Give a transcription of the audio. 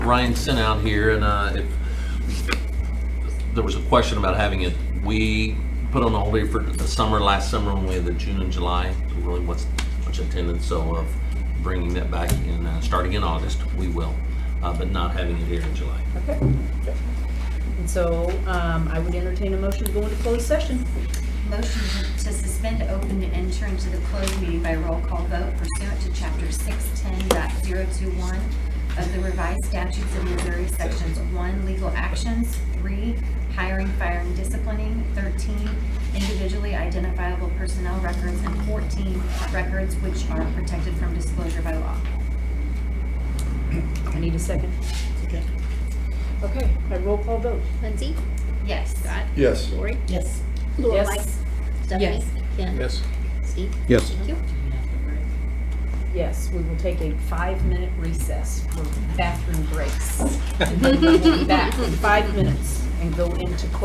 Ryan sent out here, and uh, if, there was a question about having it, we put on hold here for the summer, last summer, when we had the June and July, really what's, much attendance, so of bringing that back in, uh, starting in August, we will, uh, but not having it here in July. Okay. And so um, I would entertain a motion to go into closed session. Motion to suspend, open, and enter into the closed meeting by roll call vote pursuant to Chapter 610.021 of the revised statutes of Missouri, Sections 1, legal actions, 3, hiring, firing, disciplining, 13, individually identifiable personnel records, and 14, records which are protected from disclosure by law. I need a second. Okay, I roll call vote. Lindsay? Yes. Scott? Yes. Lori? Yes. Laura, Yes. Mike? Stephanie? Yes. Ken? Steve? Yes. Thank you. Yes, we will take a five-minute recess for bathroom breaks. We'll be back in five minutes and go into closed.